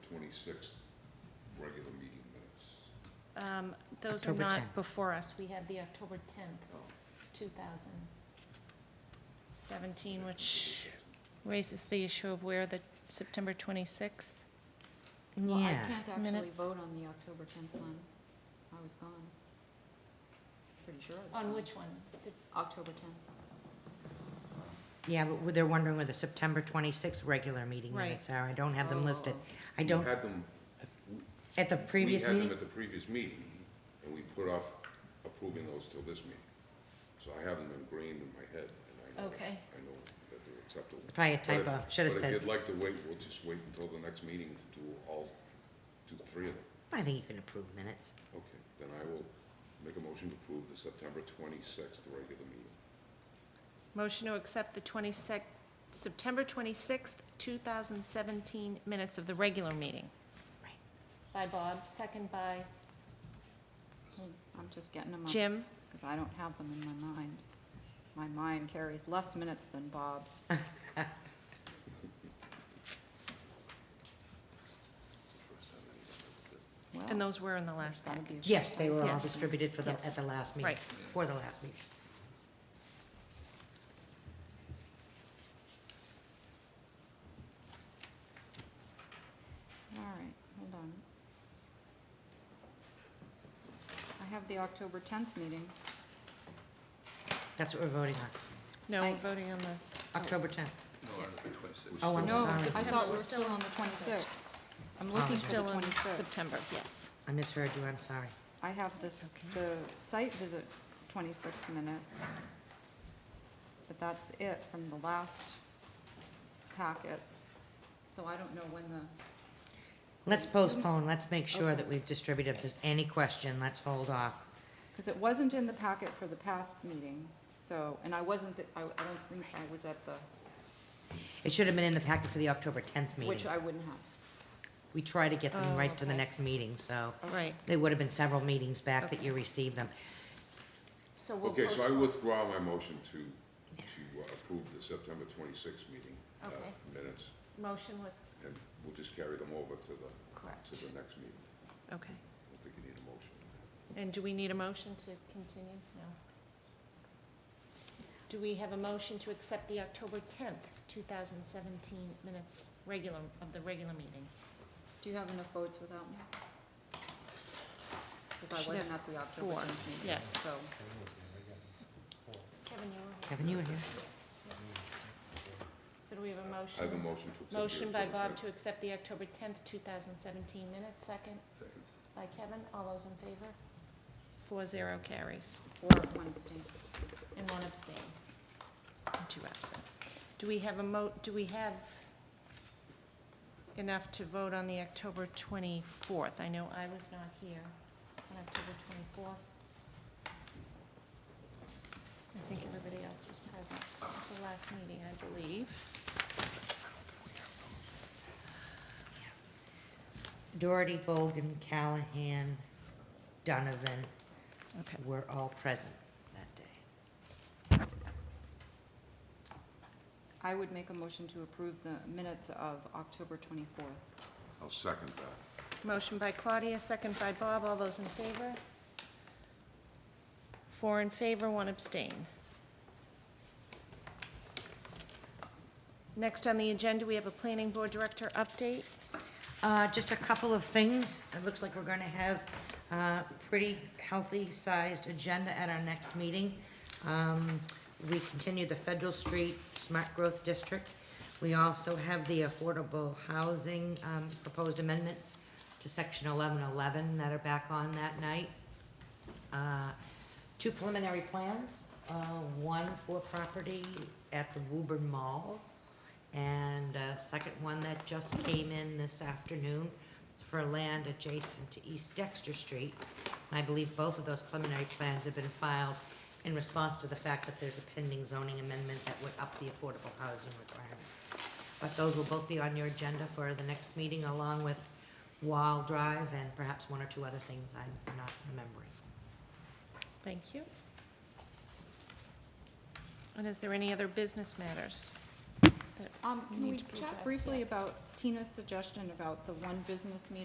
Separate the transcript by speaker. Speaker 1: twenty-sixth regular meeting minutes.
Speaker 2: Um, Those are
Speaker 3: October
Speaker 2: not
Speaker 3: 10th.
Speaker 2: before us. We have the October 10th, 2017, which raises the issue of where the September 26th.
Speaker 4: Well, I
Speaker 3: Yeah.
Speaker 4: can't actually
Speaker 2: Minutes.
Speaker 4: vote on the October tenth one. I was gone. Pretty sure I was gone.
Speaker 2: one?
Speaker 4: October tenth.
Speaker 3: Yeah, but they're wondering where the September 26th regular meeting
Speaker 2: Right.
Speaker 3: minutes are. I don't have them
Speaker 4: Oh.
Speaker 3: listed. I
Speaker 1: We
Speaker 3: don't,
Speaker 1: had them-
Speaker 3: at the previous
Speaker 1: We had
Speaker 3: meeting?
Speaker 1: them at the previous meeting, and we put off approving those till this meeting. So I have them ingrained in my head, and I know,
Speaker 2: Okay.
Speaker 1: I know that they're acceptable.
Speaker 3: Probably a
Speaker 1: But if-
Speaker 3: typo. Should have
Speaker 1: But if
Speaker 3: said,
Speaker 1: you'd like to wait, we'll just wait until the next meeting to do all, do the three of them.
Speaker 3: I think you can approve minutes.
Speaker 1: Okay, then I will make a motion to approve the September twenty-sixth regular meeting.
Speaker 2: Motion to accept the 26th, September 26th, 2017 minutes of the regular meeting.
Speaker 3: Right.
Speaker 2: By Bob, second by
Speaker 4: I'm just getting them up,
Speaker 2: Jim.
Speaker 4: because I don't have them in my mind. My mind carries less minutes than Bob's. Well,
Speaker 2: And those were in the
Speaker 4: there's
Speaker 2: last
Speaker 4: gotta
Speaker 2: packet.
Speaker 4: be a
Speaker 3: Yes, they were all
Speaker 2: Yes.
Speaker 3: distributed for the, at
Speaker 2: Yes.
Speaker 3: the last meeting,
Speaker 2: Right.
Speaker 3: for the last meeting.
Speaker 4: All right, hold on. I have the October tenth meeting.
Speaker 3: That's what we're voting
Speaker 4: Oh.
Speaker 3: on,
Speaker 2: No, we're
Speaker 4: I-
Speaker 2: voting on the,
Speaker 3: October 10th.
Speaker 1: We're
Speaker 3: Oh, I'm
Speaker 1: still-
Speaker 4: No, I
Speaker 3: sorry.
Speaker 4: thought we
Speaker 2: We're
Speaker 4: were
Speaker 2: still
Speaker 4: still on
Speaker 2: on
Speaker 4: the twenty-sixth. I'm
Speaker 3: Oh,
Speaker 4: looking
Speaker 3: okay.
Speaker 4: for the
Speaker 2: still in
Speaker 4: twenty-sixth.
Speaker 2: September, yes.
Speaker 3: I misheard you, I'm sorry.
Speaker 4: I have this, the site visit, 26 minutes, but that's it from the last packet. So I don't know when the,
Speaker 3: Let's postpone, let's make sure
Speaker 4: Okay.
Speaker 3: that we've distributed. If there's any question, let's hold off.
Speaker 4: because it wasn't in the packet for the past meeting, so, and I wasn't, the- I I don't think I was at the,
Speaker 3: It should have been in the packet for the October 10th
Speaker 4: which
Speaker 3: meeting.
Speaker 4: I wouldn't have.
Speaker 3: We try to get them
Speaker 2: Oh,
Speaker 3: right to the
Speaker 2: okay.
Speaker 3: next meeting, so
Speaker 2: Right.
Speaker 3: they would have been several meetings back that you received them.
Speaker 2: So we'll
Speaker 1: Okay, so I
Speaker 2: postpone.
Speaker 1: withdraw my motion to, to uh, approve the September twenty-sixth meeting uh,
Speaker 2: Okay.
Speaker 1: minutes,
Speaker 2: Motion with,
Speaker 1: and we'll just carry them over to the,
Speaker 2: correct,
Speaker 1: to the next meeting. I
Speaker 2: okay.
Speaker 1: don't think you need a motion.
Speaker 2: And do we need a motion to continue? No. Do we have a motion to accept the October tenth, two thousand seventeen minutes regular, of the regular meeting?
Speaker 4: Do you have enough votes without me? Because
Speaker 2: Should
Speaker 4: I wasn't at the October
Speaker 2: four,
Speaker 4: 10th meeting,
Speaker 2: yes.
Speaker 4: so.
Speaker 2: Kevin, you were here.
Speaker 3: Kevin, you were here.
Speaker 2: Yes. So do we have a
Speaker 1: I have a motion
Speaker 2: motion?
Speaker 1: to accept. the
Speaker 2: Motion by
Speaker 1: October
Speaker 2: Bob
Speaker 1: tenth.
Speaker 2: to accept the October tenth, two thousand seventeen minutes, second
Speaker 1: Second.
Speaker 2: by Kevin. All those in favor? Four zero carries.
Speaker 4: Or one abstain.
Speaker 2: And one abstain. And two absent. Do we have a mo, do we have enough to vote on the October 24th? I know I was not here on October 24th. I think everybody else was present at the last meeting, I believe.
Speaker 3: Doherty, Bolgan, Callahan, Donovan
Speaker 2: Okay.
Speaker 3: were all present that day.
Speaker 4: I would make a motion to approve the minutes of October 24th.
Speaker 1: I'll second that.
Speaker 2: Motion by Claudia, second by Bob. All those in favor? Four in favor, one abstain. Next on the agenda, we have a planning board director update.
Speaker 3: Uh, Just a couple of things. It looks like we're going to have a pretty healthy-sized agenda at our next meeting. Um, We continue the Federal Street Smart Growth District. We also have the affordable housing um, proposed amendments to Section 1111 that are back on that night. Uh, Two preliminary plans, uh, one for property at the Woburn Mall, and a second one that just came in this afternoon for land adjacent to East Dexter Street. And I believe both of those preliminary plans have been filed in response to the fact that there's a pending zoning amendment that would up the affordable housing requirement. But those will both be on your agenda for the next meeting, along with Wall Drive and perhaps one or two other things I'm not remembering.
Speaker 2: Thank you. And is there any other business matters that
Speaker 4: Um, can
Speaker 2: need
Speaker 4: we
Speaker 2: to be
Speaker 4: chat
Speaker 2: addressed,
Speaker 4: briefly
Speaker 2: yes.
Speaker 4: about Tina's suggestion about the one business meeting